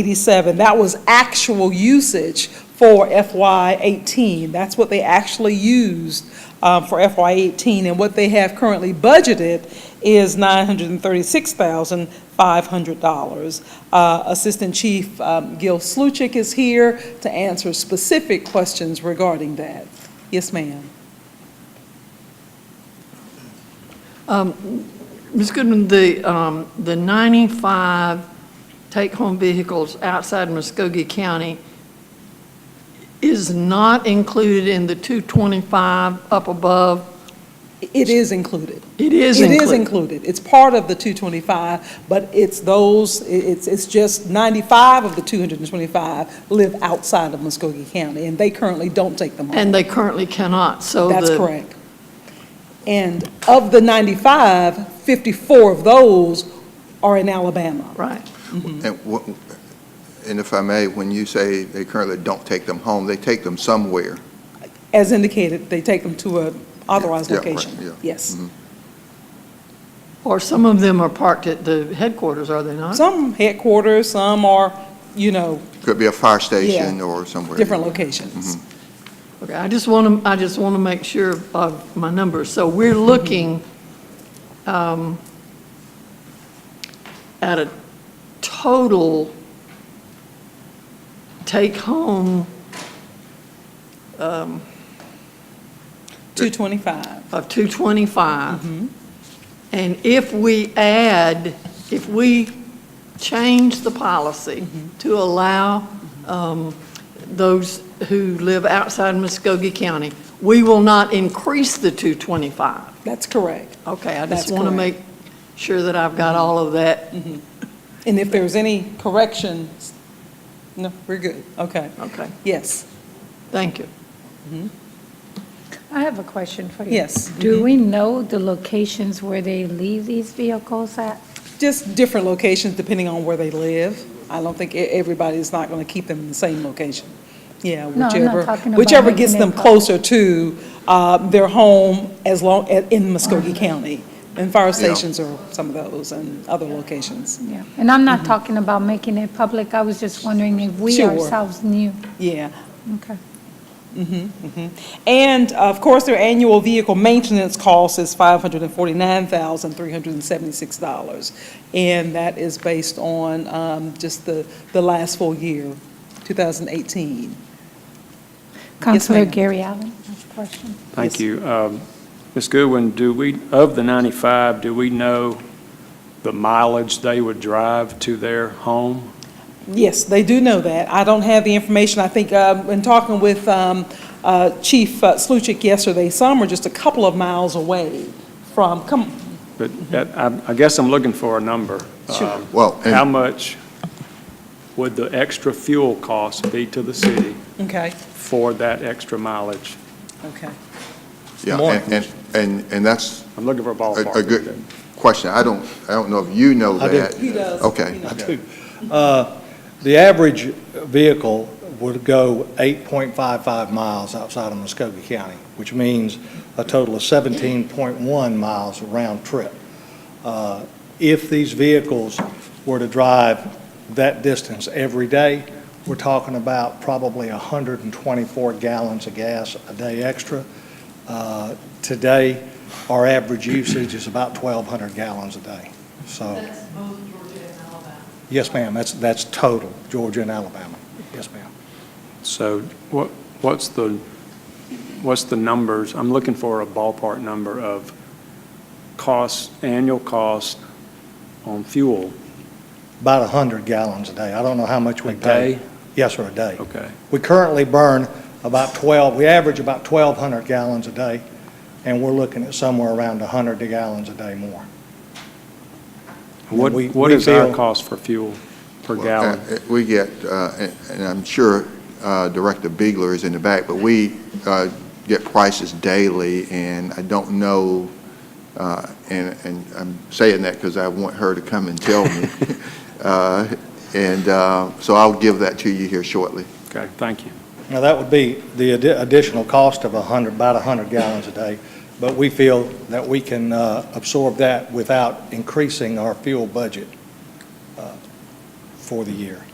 87. That was actual usage for FY '18. That's what they actually used uh, for FY '18, and what they have currently budgeted is $936,500. Uh, Assistant Chief um, Gil Sluchik is here to answer specific questions regarding that. Yes, ma'am. Ms. Goodman, the, um, the 95 take-home vehicles outside Muskogee County is not included in the 225 up above? It is included. It is It is included? included. It's part of the 225, but it's those, i- it's, it's just 95 of the 225 live outside of Muskogee County, and they currently don't take them home. And they currently cannot, so the... That's correct. And of the 95, 54 of those are in Alabama. Right. And wha- and if I may, when you say they currently don't take them home, they take them somewhere. As indicated, they take them to a authorized Yeah, right, yeah. Mm-hmm. location. Yes. Or some of them are parked at the headquarters, are they not? Some headquarters, some are, you know, Could be a fire station or somewhere. different locations. Mm-hmm. Okay, I just want to, I just want to make sure of my numbers. So we're looking um, at a total take-home 225. of 225. And if we add, if we change the policy to allow um, those who live outside Muskogee County, we will not increase the 225. That's correct. Okay, I That's just want to correct. make sure that I've got all of that. And if there's any corrections, no, we're good, okay. Okay, Yes, thank you. I have a question for you. Yes. Do we know the locations where they leave these vehicles at? just different locations depending on where they live. I don't think e- everybody's not going to keep them in the same location. Yeah, No, I'm not whichever, talking about whichever making gets it them public. closer to uh, their home as long, a- in Muskogee County. And fire stations are some of those and other locations. Yeah. And I'm not talking about making it public, I was just wondering if we Mm-hmm. Sure. ourselves knew. Yeah. Okay. Mm-hmm, And uh, of course, their annual vehicle maintenance cost is $549,376. And that is based on um, just the, the last full year, 2018. Counselor ma'am. Gary Allen, that's a question. Yes. Thank you. Um, Ms. Goodwin, do we, of the 95, do we know the mileage they would drive to their home? Yes, they do know that. I don't have the information. I think um, in talking with um, uh, Chief uh, Sluchik yesterday, some are just a couple of miles away from, come, But that- I I guess I'm looking for a number. Sure. Um, Well, and- How much would the extra fuel cost be to the city okay, for that extra mileage? okay. Yeah, More. and, and- and, and that's I'm looking for a a, ballpark. a good question. I don't, I don't know if you know I do. that. He does. Okay. He knows. Uh, The average vehicle would go 8.55 miles outside of Muskogee County, which means a total of 17.1 miles round trip. Uh, If these vehicles were to drive that distance every day, we're talking about probably 124 gallons of gas a day extra. Uh, Today, our average usage is about 1,200 gallons a day, so. Yes, ma'am, that's, that's total, Georgia and Alabama. Yes, ma'am. So what, what's the, what's the numbers? I'm looking for a ballpark number of costs, annual cost on fuel About 100 gallons a day. I don't know how much we a pay. day? Yes, sir, a day. Okay. We currently burn about 12, we average about 1,200 gallons a day, and we're looking at somewhere around 100 gallons a day more. What, we- what we is our feel- cost for fuel per Well, gallon? uh, We get, uh, and and I'm sure uh, Director Bigler is in the back, but we uh, get prices daily, and I don't know, uh, and and I'm saying that because I want her to come and tell me. Uh, And uh, so I'll give that to you here shortly. Okay, thank you. Now, that would be the addi- additional cost of 100, about 100 gallons a day, but we feel that we can uh, absorb that without increasing our fuel budget uh, for the year.